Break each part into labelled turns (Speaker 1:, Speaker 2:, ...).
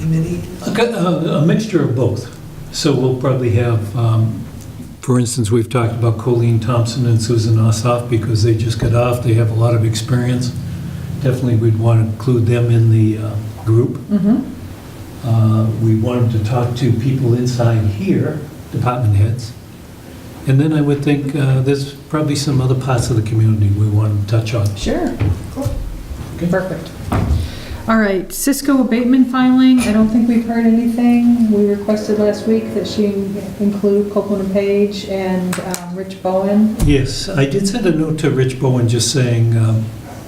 Speaker 1: committee?
Speaker 2: A co- A a mixture of both. So we'll probably have, um, for instance, we've talked about Colleen Thompson and Susan Ossoff because they just got off. They have a lot of experience. Definitely, we'd want to include them in the uh, group. Uh, We wanted to talk to people inside here, department heads. And then I would think uh, there's probably some other parts of the community we want to touch on.
Speaker 3: Sure.
Speaker 2: Okay.
Speaker 3: Perfect. All right, Cisco abatement filing, I don't think we've heard anything. We requested last week that she include Copeland and Page and um, Rich Bowen.
Speaker 2: Yes, I did send a note to Rich Bowen just saying, um,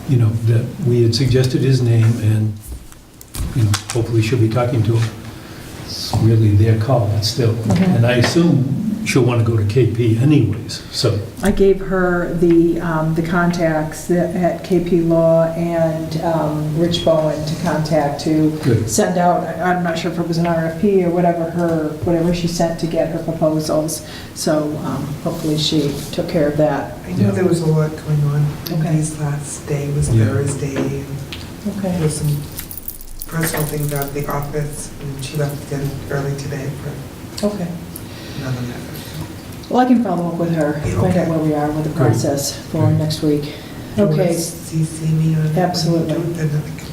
Speaker 2: you know, that we had suggested his name and, you know, hopefully she'll be talking to him. It's really their call, it's still.
Speaker 3: Mhm.
Speaker 2: And I assume she'll want to go to KP anyways, so,
Speaker 3: I gave her the, um, the contacts that- at KP Law and um, Rich Bowen to contact to
Speaker 2: good.
Speaker 3: send out, I- I'm not sure if it was an RFP or whatever her, whatever she sent to get her proposals. So um, hopefully she took care of that.
Speaker 1: I know there was a lot going on.
Speaker 3: Okay.
Speaker 1: His last day was
Speaker 2: Yeah.
Speaker 1: Thursday, and there
Speaker 3: Okay.
Speaker 1: was some personal things out of the office, and she left again early today for
Speaker 3: Okay.
Speaker 1: another matter.
Speaker 3: Well, I can follow up with her,
Speaker 1: Yeah,
Speaker 3: find out
Speaker 1: okay.
Speaker 3: where we are with the
Speaker 2: Great.
Speaker 3: process for
Speaker 2: Great.
Speaker 3: next week.
Speaker 1: Do you wanna
Speaker 3: Okay.
Speaker 1: CC me on it when you do it?
Speaker 3: Absolutely.
Speaker 1: Then I can-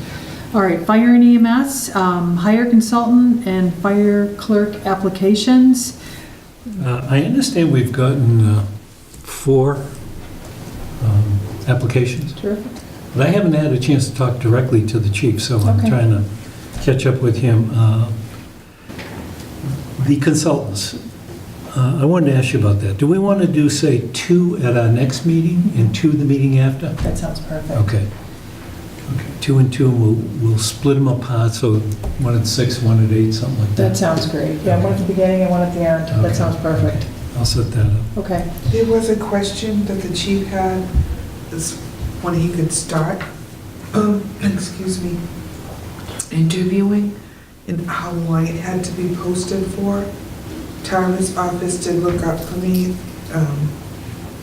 Speaker 3: All right, fire and EMS, um, hire consultant and fire clerk applications.
Speaker 2: Uh, I understand we've gotten uh, four um, applications.
Speaker 3: Terrific.
Speaker 2: But I haven't had a chance to talk directly to the chief, so I'm
Speaker 3: Okay.
Speaker 2: trying to catch up with him. Uh, The consultants, uh, I wanted to ask you about that. Do we want to do, say, two at our next meeting and two the meeting after?
Speaker 3: That sounds perfect.
Speaker 2: Okay. Okay, Two and two, and we'll, we'll split them apart, so one at six, one at eight, something like
Speaker 3: That
Speaker 2: that.
Speaker 3: sounds great. Yeah, one at the beginning and one at the end.
Speaker 2: Okay.
Speaker 3: That sounds perfect.
Speaker 2: I'll set that up.
Speaker 3: Okay.
Speaker 1: There was a question that the chief had, is when he could start, um, excuse me, interviewing, and how long it had to be posted for. Tyler's office did look up for me um,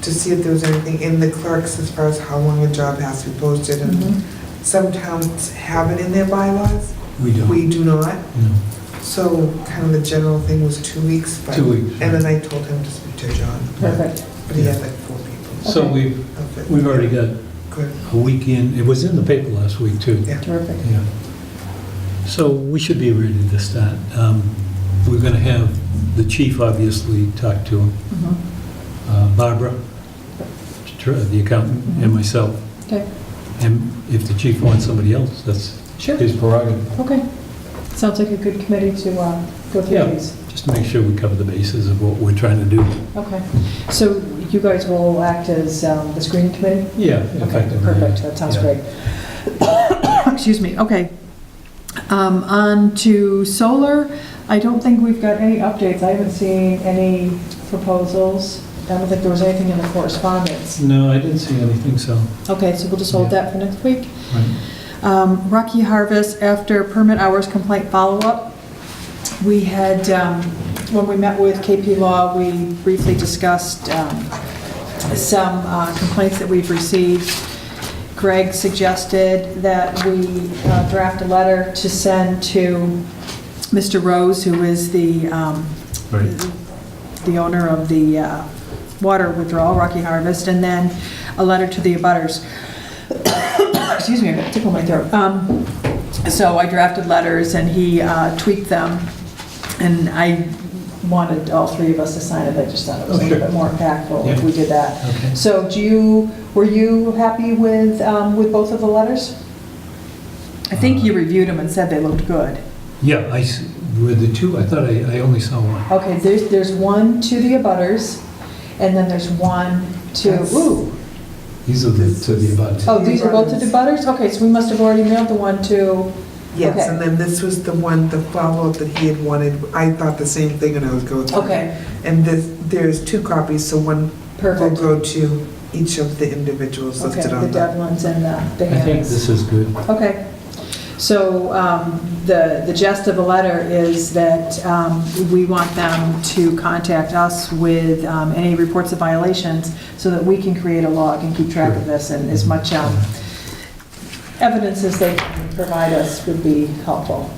Speaker 1: to see if there was anything in the clerks as far as how long a job has to be posted. And
Speaker 3: Mhm.
Speaker 1: some towns have it in their bylaws,
Speaker 2: We don't,
Speaker 1: we do not.
Speaker 2: no,
Speaker 1: So kind of the general thing was two weeks. but-
Speaker 2: two weeks.
Speaker 1: And then I told him to speak to John.
Speaker 3: Perfect.
Speaker 1: But he had like four people.
Speaker 2: So we've,
Speaker 1: of it.
Speaker 2: we've already got
Speaker 1: Good.
Speaker 2: a week in, it was in the paper last week, too.
Speaker 3: Terrific.
Speaker 2: Yeah. So we should be ready to start. Um, We're going to have the chief obviously talk to him,
Speaker 3: Mhm.
Speaker 2: uh, Barbara, tr- the accountant, and myself.
Speaker 3: Mm-hmm. Okay.
Speaker 2: And if the chief wants somebody else, that's
Speaker 3: Sure.
Speaker 2: his prerogative,
Speaker 3: Okay. Sounds like a good committee to uh, go through
Speaker 2: Yeah.
Speaker 3: these.
Speaker 2: just to make sure we cover the bases of what we're trying to do.
Speaker 3: Okay. So you guys will act as um, the screening committee?
Speaker 2: Yeah,
Speaker 3: Okay,
Speaker 2: effectively.
Speaker 3: perfect, that sounds
Speaker 2: Yeah.
Speaker 3: great. Excuse me, okay. Um, On to solar, I don't think we've got any updates, I haven't seen any proposals, I don't think there was anything in the correspondence.
Speaker 2: No, I didn't see anything, so,
Speaker 3: Okay, so we'll just hold that for next week.
Speaker 2: right.
Speaker 3: Um, Rocky Harvest, after permit hours complaint follow-up, we had, um, when we met with KP Law, we briefly discussed um, some uh, complaints that we've received. Greg suggested that we uh, draft a letter to send to Mr. Rose, who is the um,
Speaker 2: Right.
Speaker 3: the owner of the uh, water withdrawal, Rocky Harvest, and then a letter to the abutters. Excuse me, I got a tickle in my throat. Um, So I drafted letters, and he uh, tweaked them, and I wanted all three of us to sign it, I just thought it was a little
Speaker 2: Okay.
Speaker 3: bit more impactful if
Speaker 2: Yeah.
Speaker 3: we did that.
Speaker 2: Okay.
Speaker 3: So do you, were you happy with, um, with both of the letters? I think you reviewed them and said they looked good.
Speaker 2: Yeah, I, s- were the two, I thought I I only saw one.
Speaker 3: Okay, there's, there's one to the abutters, and then there's one to,
Speaker 1: That's-
Speaker 3: ooh,
Speaker 2: These are the, to the about.
Speaker 3: oh, these are both to the abutters? Okay, so we must have already mailed the one to,
Speaker 1: Yes,
Speaker 3: Okay.
Speaker 1: and then this was the one, the follow-up that he had wanted. I thought the same thing when I was going through. it.
Speaker 3: okay,
Speaker 1: And this, there's two copies, so one will
Speaker 3: perfect.
Speaker 1: go to each of the individuals
Speaker 3: Okay,
Speaker 1: listed
Speaker 3: the
Speaker 1: on the.
Speaker 3: dead ones and the the
Speaker 2: I think
Speaker 3: hands.
Speaker 2: this is good.
Speaker 3: Okay, so um, the, the gist of the letter is that um, we want them to contact us with um, any reports of violations so that we can create a log and keep track of this and as much um, evidence as they can provide us would be helpful.